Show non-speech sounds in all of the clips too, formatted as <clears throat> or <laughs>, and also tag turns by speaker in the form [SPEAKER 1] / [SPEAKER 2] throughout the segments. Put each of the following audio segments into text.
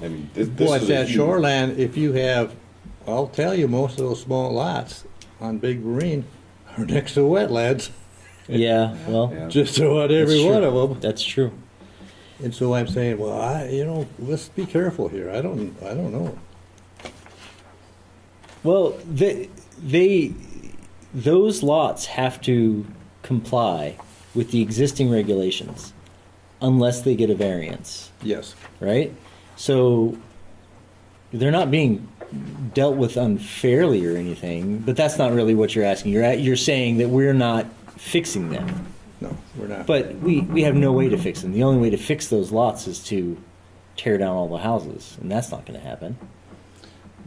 [SPEAKER 1] I mean, this, this
[SPEAKER 2] Boy,
[SPEAKER 1] is
[SPEAKER 2] it's
[SPEAKER 1] a
[SPEAKER 2] that
[SPEAKER 1] huge-
[SPEAKER 2] shoreline, if you have, I'll tell you, most of those small lots on Big Marine are next to wetlands,
[SPEAKER 3] Yeah, well,
[SPEAKER 1] Yeah.
[SPEAKER 2] <laughs> just about every
[SPEAKER 3] That's true.
[SPEAKER 2] one of them.
[SPEAKER 3] that's true.
[SPEAKER 2] And so I'm saying, well, I, you know, let's be careful here. I don't, I don't know.
[SPEAKER 3] Well, they, they those lots have to comply with the existing regulations unless they get a variance,
[SPEAKER 2] Yes.
[SPEAKER 3] right? So they're not being dealt with unfairly or anything, but that's not really what you're asking. You're at, you're saying that we're not fixing them.
[SPEAKER 2] No, we're not.
[SPEAKER 3] But we, we have no way to fix them. The only way to fix those lots is to tear down all the houses, and that's not going to happen.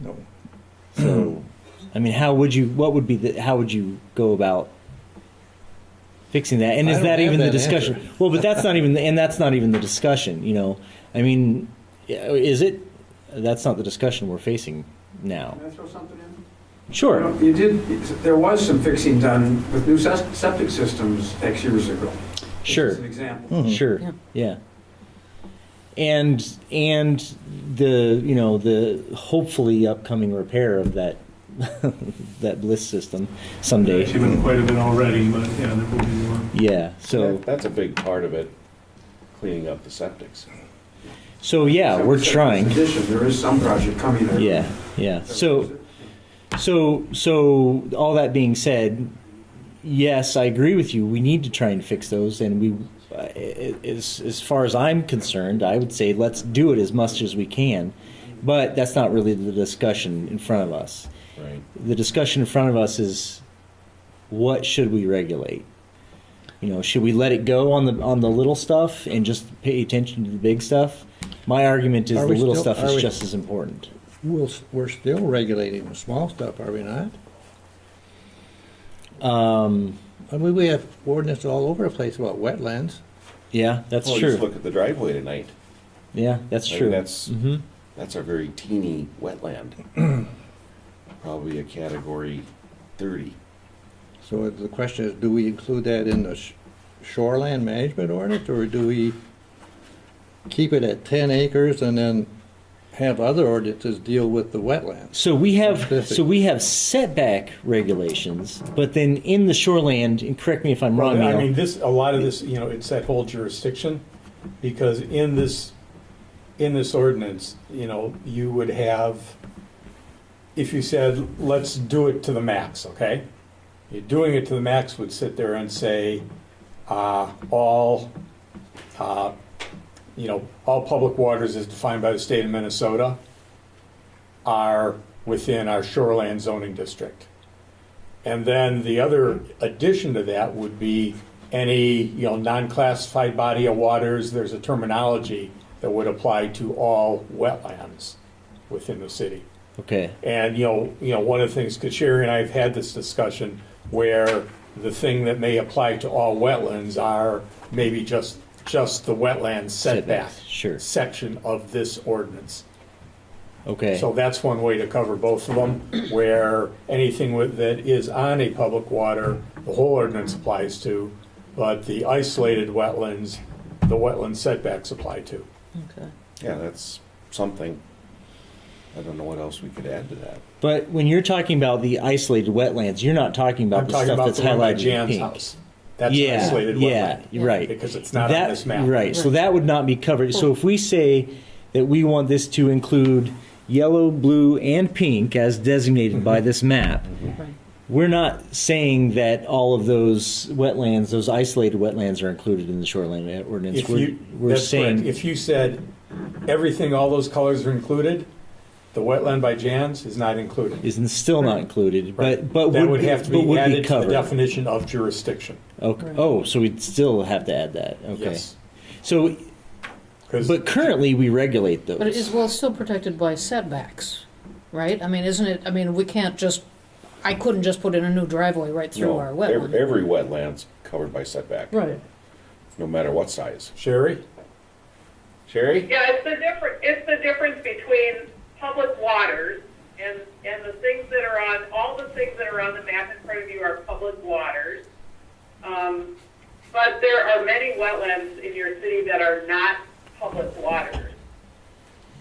[SPEAKER 2] No.
[SPEAKER 3] So, I mean, how would you? What would be the? How would you go about fixing that? And
[SPEAKER 2] I
[SPEAKER 3] is
[SPEAKER 2] don't
[SPEAKER 3] that
[SPEAKER 2] have
[SPEAKER 3] even the
[SPEAKER 2] that
[SPEAKER 3] discussion?
[SPEAKER 2] answer.
[SPEAKER 3] Well, but that's not even. And that's not even the discussion. You know, I mean, yeah, is it? That's not the discussion we're facing now.
[SPEAKER 4] Can I throw something in? You
[SPEAKER 3] Sure.
[SPEAKER 4] know, You did, there was some fixing done with new ses- septic systems X years ago.
[SPEAKER 3] Sure.
[SPEAKER 4] As an example.
[SPEAKER 2] Mm-hmm.
[SPEAKER 3] Sure. Yeah. And and the you know the hopefully upcoming repair of that <laughs> that bliss system someday.
[SPEAKER 5] Actually, been quite a bit already, but yeah, there will be more.
[SPEAKER 3] Yeah. So
[SPEAKER 1] That- That's a big part of it, cleaning up the septics.
[SPEAKER 3] so yeah,
[SPEAKER 4] Septic
[SPEAKER 3] we're
[SPEAKER 4] systems
[SPEAKER 3] trying.
[SPEAKER 4] Addition, there is some project coming there.
[SPEAKER 3] Yeah, yeah. So, so, so, all that being said, yes, I agree with you. We need to try and fix those, and we, uh, as as far as I'm concerned, I would say let's do it as much as we can. But that's not really the discussion in front of us.
[SPEAKER 1] Right.
[SPEAKER 3] The discussion in front of us is what should we regulate? You know, should we let it go on the on the little stuff and just pay attention to the big stuff? My argument is
[SPEAKER 2] Are
[SPEAKER 3] the
[SPEAKER 2] we
[SPEAKER 3] little
[SPEAKER 2] still-
[SPEAKER 3] stuff is
[SPEAKER 2] are we-
[SPEAKER 3] just as important.
[SPEAKER 2] We'll, s- we're still regulating the small stuff, are we not?
[SPEAKER 3] Um,
[SPEAKER 2] I mean, we have ordinance all over the place about wetlands.
[SPEAKER 3] Yeah, that's
[SPEAKER 1] Well, just
[SPEAKER 3] true.
[SPEAKER 1] look at the driveway tonight.
[SPEAKER 3] Yeah, that's
[SPEAKER 1] I mean,
[SPEAKER 3] true.
[SPEAKER 1] That's,
[SPEAKER 3] hmm
[SPEAKER 1] that's a very teeny wetland.
[SPEAKER 3] <clears throat>
[SPEAKER 1] Probably a category thirty.
[SPEAKER 2] So the question is, do we include that in the sh- shoreland management ordinance, or do we keep it at ten acres and then have other ordinances deal with the wetlands?
[SPEAKER 3] So we
[SPEAKER 6] <laughs>
[SPEAKER 3] have
[SPEAKER 2] Specific.
[SPEAKER 3] so we have setback regulations, but then in the shoreland, and correct me if I'm wrong,
[SPEAKER 6] Well, I
[SPEAKER 3] Neil,
[SPEAKER 6] mean, this, a lot of this, you know, it's that whole jurisdiction, because in this, in this ordinance, you know, you would have, if you said, let's do it to the max, okay? You're doing it to the max would sit there and say, uh, all, uh, you know, all public waters as defined by the state of Minnesota are within our shoreline zoning district. And then the other addition to that would be any, you know, non-classified body of waters, there's a terminology that would apply to all wetlands within the city.
[SPEAKER 3] Okay.
[SPEAKER 6] And, you know, you know, one of the things, because Sherry and I have had this discussion where the thing that may apply to all wetlands are maybe just, just the wetland setback
[SPEAKER 3] Setbacks, sure.
[SPEAKER 6] section of this ordinance.
[SPEAKER 3] Okay.
[SPEAKER 6] So that's one way to cover both of them, where anything with, that is on a public water, the whole ordinance applies to, but the isolated wetlands, the wetland setbacks apply to.
[SPEAKER 1] Yeah, that's something. I don't know what else we could add to that.
[SPEAKER 3] but when you're talking about the isolated wetlands, you're not talking about
[SPEAKER 6] I'm
[SPEAKER 3] the
[SPEAKER 6] talking
[SPEAKER 3] stuff
[SPEAKER 6] about
[SPEAKER 3] that's
[SPEAKER 6] the one by
[SPEAKER 3] highlighted in
[SPEAKER 6] Jan's
[SPEAKER 3] pink.
[SPEAKER 6] house. That's an
[SPEAKER 3] yeah,
[SPEAKER 6] isolated
[SPEAKER 3] yeah,
[SPEAKER 6] wetland,
[SPEAKER 3] you're right.
[SPEAKER 6] because it's not on
[SPEAKER 3] That-
[SPEAKER 6] this map.
[SPEAKER 3] Right, so that would not be covered. So if we say that we want this to include yellow, blue, and pink as designated by this map,
[SPEAKER 7] Right.
[SPEAKER 3] we're not saying that all of those wetlands, those isolated wetlands, are included in the shoreline eh, ordinance.
[SPEAKER 6] If
[SPEAKER 3] we're
[SPEAKER 6] you,
[SPEAKER 3] we're
[SPEAKER 6] that's correct.
[SPEAKER 3] saying
[SPEAKER 6] If you said everything, all those colors are included, the wetland by Jan's is not included.
[SPEAKER 3] is still not included, but but
[SPEAKER 6] That would
[SPEAKER 3] be,
[SPEAKER 6] have to
[SPEAKER 3] but
[SPEAKER 6] be
[SPEAKER 3] would
[SPEAKER 6] added to the
[SPEAKER 3] covered.
[SPEAKER 6] definition of jurisdiction.
[SPEAKER 3] okay. Oh, so we'd still have to add that. Okay.
[SPEAKER 6] Yes.
[SPEAKER 3] So,
[SPEAKER 6] 'Cause-
[SPEAKER 3] but currently we regulate those.
[SPEAKER 7] But it is, well, it's still protected by setbacks, right? I mean, isn't it, I mean, we can't just, I couldn't just put in a new driveway right through
[SPEAKER 1] No,
[SPEAKER 7] our
[SPEAKER 1] ev-
[SPEAKER 7] wetland.
[SPEAKER 1] Every wetland's covered by setback,
[SPEAKER 7] Right.
[SPEAKER 1] no matter what size.
[SPEAKER 6] Sherry?
[SPEAKER 1] Sherry?
[SPEAKER 8] Yeah, it's the different, it's Um,